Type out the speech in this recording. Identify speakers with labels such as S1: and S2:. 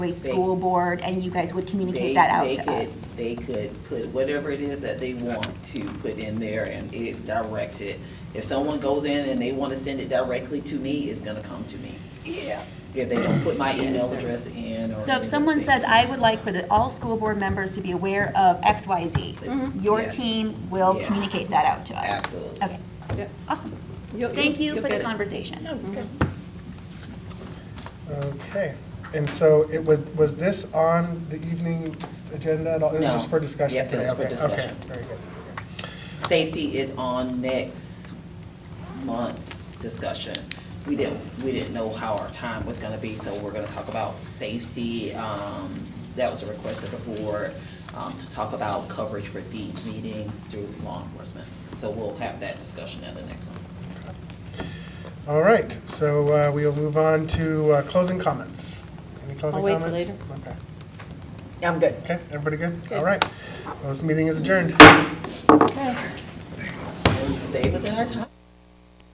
S1: Gateway School Board, and you guys would
S2: They-
S1: communicate that out
S2: they
S1: to
S2: could-
S1: us?
S2: They could put whatever it is that they want to put in there and it's directed. If someone goes in and they want to send it directly to me, it's gonna come to me.
S3: Yeah.
S2: If they don't put my email address in or.
S1: So if someone says, I would like for the, all school board members to be aware of X, Y, Z, your
S2: Mm-hmm. Yes.
S1: team will
S2: Yes.
S1: communicate that out to us?
S2: Absolutely.
S1: Okay,
S3: Yep.
S1: awesome. Thank you for the conversation.
S3: No, it's good.
S4: Okay, and so it was, was this on the evening agenda at all? It was
S2: No.
S4: just for discussion
S2: Yep, it
S4: today?
S2: was for
S4: Okay,
S2: discussion.
S4: Okay, very good.
S2: Safety is on next month's discussion. We didn't, we didn't know how our time was gonna be, so we're gonna talk about safety. Um, that was a request of the board, um, to talk about coverage for these meetings through law enforcement. So we'll have that discussion at the next one.
S4: All right, so uh, we will move on to uh, closing comments. Any closing
S3: I'll wait till
S4: comments? Okay.
S3: I'm good.
S4: Okay, everybody good? All
S3: Good.
S4: right. Well, This meeting is adjourned.
S2: Stay within our time.